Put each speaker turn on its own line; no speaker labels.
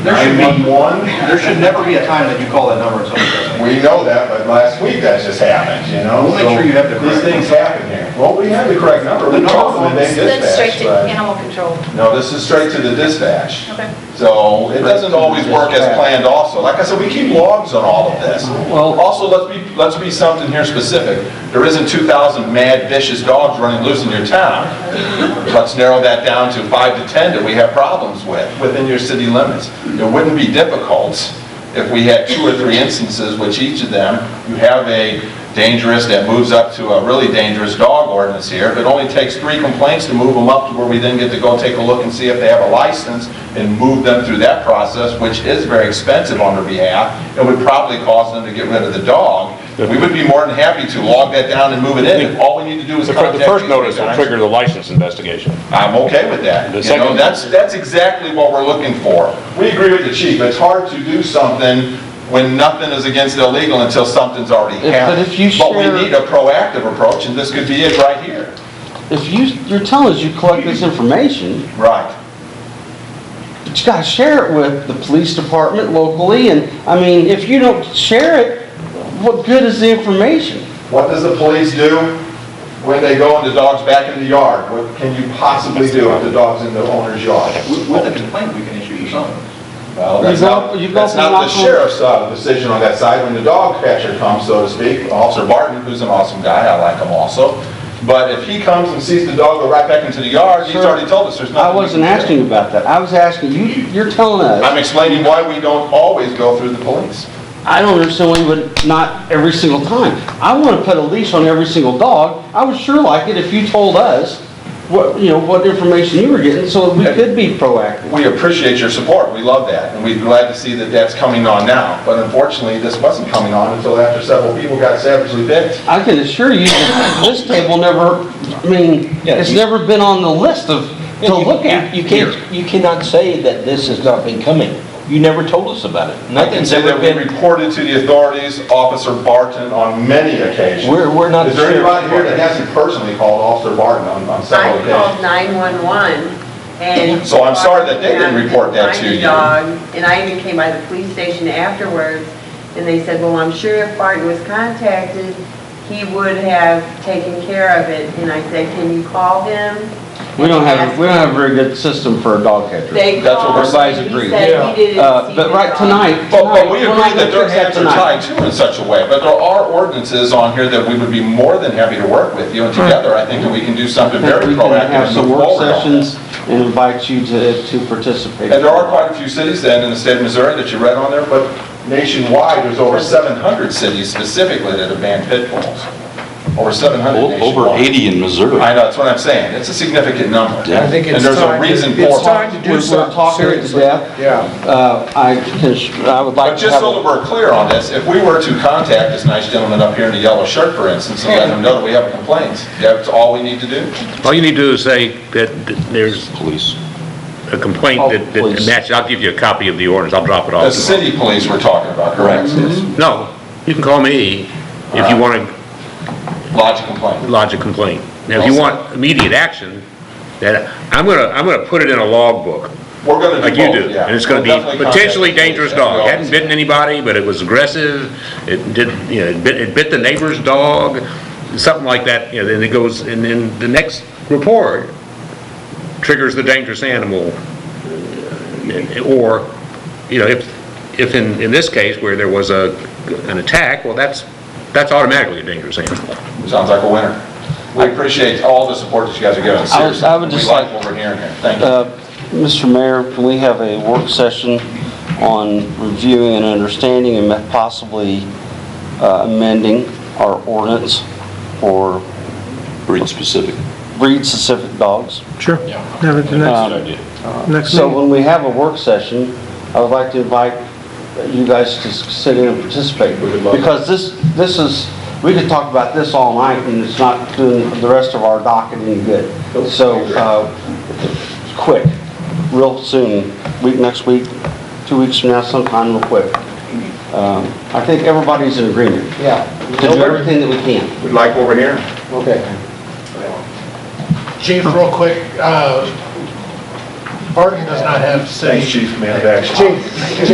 There should be,
911,
there should never be a time that you call that number and somebody doesn't.
we know that, but last week that just happened, you know?
We'll make sure you have the
So These
correct-
things happen here. Well, we have the correct number, we
The
called them and
number
they
That's straight
dispatched,
to
but...
animal control.
No, this is straight to the dispatch.
Okay.
So it doesn't always work as planned also. Like I said, we keep logs on all of this.
Well-
Also, let's be, let's be something here specific. There isn't 2,000 mad vicious dogs running loose in your town. Let's narrow that down to five to 10 that we have problems with, within your city limits. It wouldn't be difficult if we had two or three instances, which each of them, you have a dangerous that moves up to a really dangerous dog ordinance here. If It only takes three complaints to move them up to where we then get to go take a look and see if they have a license and move them through that process, which is very expensive on their behalf and would probably cause them to get rid of the dog. We would be more than happy to log that down and move it in. If All we need to do is
The
contact
fir-
these
the first notice will
guys.
trigger the license investigation.
I'm okay with that.
The
You know,
second-
that's, that's exactly what we're looking for. We agree with the chief, it's hard to do something when nothing is against illegal until something's already
If- but
happened.
if you share-
we need a proactive approach, and this could be it right here.
If you, you're telling us you collect this information,
Right.
but you gotta share it with the police department locally, and, I mean, if you don't share it, what good is the information?
What does the police do when they go and the dog's back in the yard? What can you possibly do if the dog's in the owner's yard?
With with a complaint, we can issue you something.
Well,
You
that's
go-
not,
you go
that's
from
not the
knock on-
sheriff's uh, decision on that side. When the dog catcher comes, so to speak, Officer Barton, who's an awesome guy, I like him also. But if he comes and sees the dog go right back into the yard, he's
Sir,
already told us there's
I
nothing. we can
wasn't
do.
asking you about that, I was asking, you, you're telling us,
I'm explaining why we don't always go through the police.
I don't understand why you would, not every single time. I wanna put a leash on every single dog, I would sure like it if you told us what, you know, what information you were getting, so we could be proactive.
We appreciate your support, we love that, and we're glad to see that that's coming on now. But unfortunately, this wasn't coming on until after several people got savagely bit.
I can assure you, that this table never, I mean,
Yeah,
it's
you-
never been on the list of, to look at.
You can't, you cannot say that this has not been coming. You never told us about it.
I can
Nothing's
say
ever
that we
been,
reported to the authorities, Officer Barton, on many occasions.
We're- we're not
Is there anybody here
sure.
that hasn't personally called Officer Barton on on
I
several
called
occasions?
911 and...
So I'm sorry that they didn't
And I
report that
couldn't
to
find
you.
the dog, And I even came by the police station afterwards, and they said, well, I'm sure if Barton was contacted, he would have taken care of it. And I said, can you call him?
We don't have, we don't have a very good system for a dog catcher.
They
That's what
called,
everybody's
and
agreed.
he said he didn't
Uh,
see
but
the
right
dog.
tonight,
But but we
tonight, we're
agree
not
that
gonna
their
fix that
hands are
tonight.
tied too in such a way, but there are ordinances on here that we would be more than happy to work with you, and together, I think that we can do something very
We can
proactive
have
and
some
move
work
forward on this.
sessions and invite you to, to participate.
And there are quite a few cities then in the state of Missouri that you read on there, but nationwide, there's over 700 cities specifically that have banned pit bulls. Over 700 nationwide.
Over 80 in Missouri.
I know, that's what I'm saying. It's a significant number.
Yeah. I
think it's And there's a reason for
We're
it.
talking to death. Uh, I can, ass- I would
But
like to
just
have,
so that
a-
we're clear on this, if we were to contact this nice gentleman up here in the yellow shirt, for instance, and let him know that we have a complaint, that's all we need to do?
All you need to do is say that there's
Police.
a complaint
Oh,
that, that
please.
matches, I'll give you a copy of the ordinance, I'll drop it
The
off. tomorrow.
city police we're talking about, correct?
No, you can call me if
Uh-huh.
you want to
Lodge a complaint.
lodge a complaint. Now, if you want immediate action, then I'm gonna, I'm gonna put it in a logbook,
We're going to
like
do
Uh, you
both,
do.
yeah.
And it's gonna
We'll definitely
be
contact
potentially
the police,
dangerous
as we
dog.
always
Hadn't
do.
bitten anybody, but it was aggressive, it did, you know, it bit, it bit the neighbor's dog, something like that, you know, then it goes, and then the next report triggers the dangerous animal or, you know, if, if in, in this case where there was a, an attack, well, that's, that's automatically a dangerous animal.
Sounds like a winner. We appreciate all the support that you guys are giving.
I would- I
Seriously,
would just
We like what we're hearing here. Thank you.
uh, Mr. Mayor, can we have a work session on reviewing and understanding and possibly uh, amending our ordinance for
Breed specific.
breed-specific dogs?
Sure. Now, the
Um,
next, next
So
meeting.
when we have a work session, I would like to invite you guys to s- sit in and participate.
We would love it.
Because this, this is, we could talk about this all night and it's not doing the rest of our docket any good. So, uh, quick, real soon, week, next week, two weeks from now, sometime real quick. Um, I think everybody's in agreement. Yeah. To do everything that we can.
We like what we're hearing.
Okay.
Chief, real quick, uh,
Barton does not have city.
Thanks, Chief, man of action.
Chief,